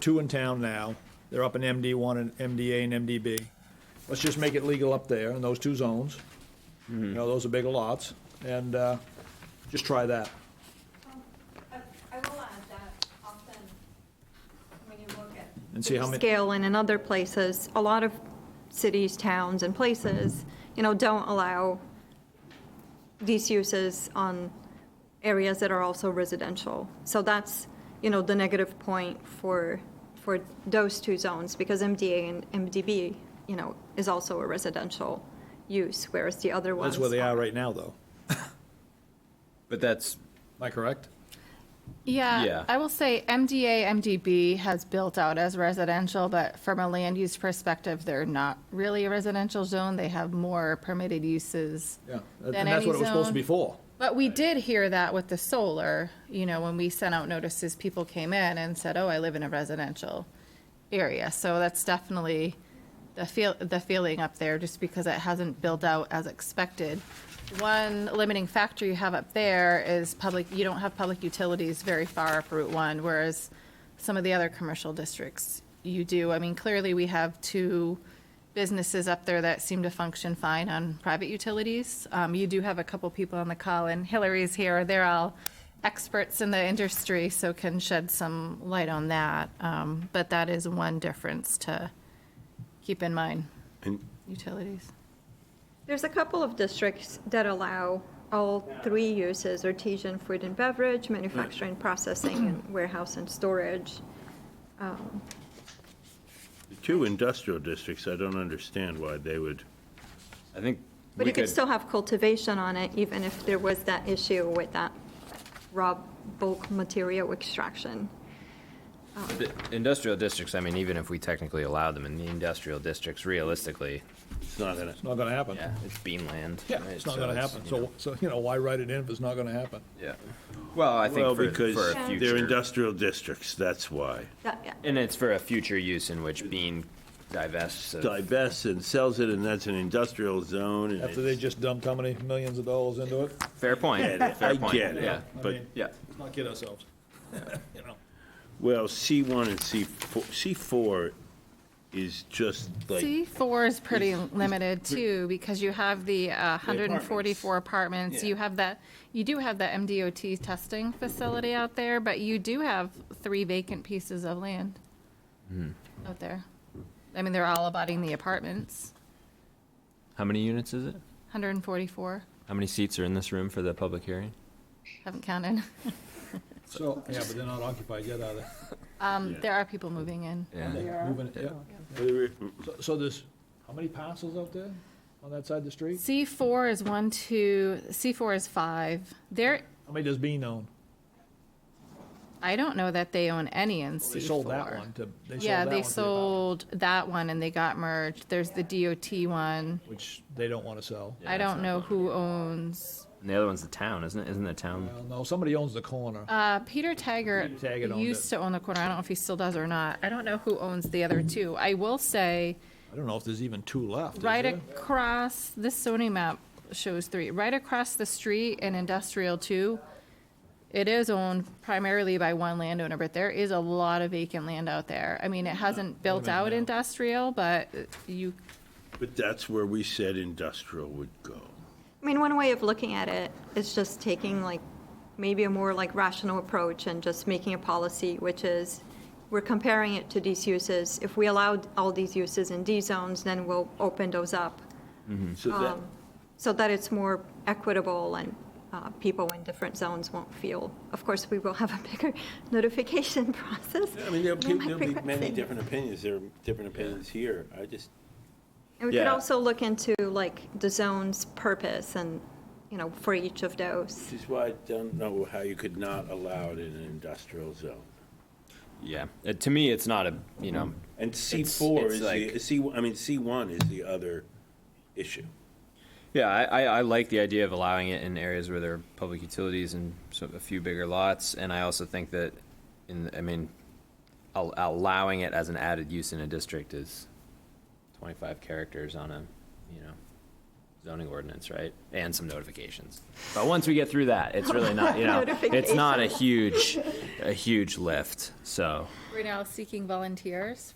two in town now. They're up in MD one and MDA and MDB. Let's just make it legal up there in those two zones. You know, those are big lots, and, uh, just try that. Um, I I will add that often, when you look at And see how many- Scale and in other places, a lot of cities, towns, and places, you know, don't allow these uses on areas that are also residential. So that's, you know, the negative point for, for those two zones, because MDA and MDB, you know, is also a residential use, whereas the other ones. That's where they are aren't. right now, though. But that's, Am I correct? Yeah. Yeah, I will say MDA, MDB has built out as residential, but from a land use perspective, they're not really a residential zone. They have more permitted uses. Yeah, and Than that's any what it was supposed to zone. be for. But we did hear that with the solar, you know, when we sent out notices, people came in and said, oh, I live in a residential area. So that's definitely the feel, the feeling up there, just because it hasn't built out as expected. One limiting factor you have up there is public, you don't have public utilities very far up Route One, whereas some of the other commercial districts you do. I mean, clearly, we have two businesses up there that seem to function fine on private utilities. Um, you do have a couple people on the call, and Hillary's here. They're all experts in the industry, so can shed some light on that. Um, but that is one difference to keep in mind. Utilities. There's a couple of districts that allow all three uses, artisan food and beverage, manufacturing, processing, and warehouse and storage. The Two industrial districts, I don't understand why they would, I think But we you could could, still have cultivation on it, even if there was that issue with that raw bulk material extraction. the industrial districts, I mean, even if we technically allow them in the industrial districts, realistically, it's not gonna, It's not gonna happen. yeah, it's bean land. Yeah, right? it's not So gonna happen. you So, know, so, you know, why write it in if it's not gonna happen? Yeah. Well, I well, think for, because for a they're future, industrial districts, that's why. That- and it's for a future use in which bean divests of Divests and sells it, and that's an industrial zone, and After they it's, just dumped how many millions of dollars into it? Fair point. I fair point. get it, Yeah. but, mean- Yeah. Let's not kid ourselves. You know, well, C one and C four, C four is just like, C4 is pretty limited too, because you have the uh, 144 apartments, you have that, you do have the MDOT testing facility out there, but you do have three vacant pieces of land out there. I mean, they're all abutting the apartments, How many units is it? 144, How many seats are in this room for the public hearing? haven't counted. so, yeah, but they're not occupied yet, are they? Um, There are people moving in. Yeah. Moving it, yeah. So- So there's, how many parcels out there on that side of the street? C4 is one, two, C4 is five. There, How many does Bean own? I don't know that they own any in C4. They sold that one to, they sold that one to. Yeah, the they apartment, sold that one and they got merged. There's the DOT one. Which they don't wanna sell. I don't know who owns, And the other one's the town, isn't it? Isn't the town? Well, no, somebody owns the corner. uh, Peter Taggart Peter Taggart owned it. used to own the corner. I don't know if he still does or not. I don't know who owns the other two. I will say, I don't know if there's even two left, is right there? across, this zoning map shows three, right across the street in industrial two, it is owned primarily by one landowner, but there is a lot of vacant land out there. I mean, it hasn't built minute out now. industrial, but you but that's where we said industrial would go. I mean, one way of looking at it is just taking like, maybe a more like rational approach and just making a policy, which is, we're comparing it to these uses. If we allowed all these uses in these zones, then we'll open those up. Mm-hmm. So that, so that it's more equitable and uh, people in different zones won't feel. Of course, we will have a bigger notification process. I mean, there'll Am be, I there'll be many progressing? different opinions, there are different opinions here, I just, And we could yeah. also look into like the zone's purpose and, you know, for each of those. this is why I don't know how you could not allow it in an industrial zone. Yeah. Uh, to me, it's not a you know. And C It's- four it's is like- the, C, I mean, C one is the other issue. Yeah, I, I, I like the idea of allowing it in areas where there are public utilities and so a few bigger lots, and I also think that, in I mean, al- allowing it as an added use in a district is twenty-five characters on a, you know, zoning ordinance, right? And some notifications. But once we get through that, it's really not, you know, it's not a huge, a huge lift, so. We're now seeking volunteers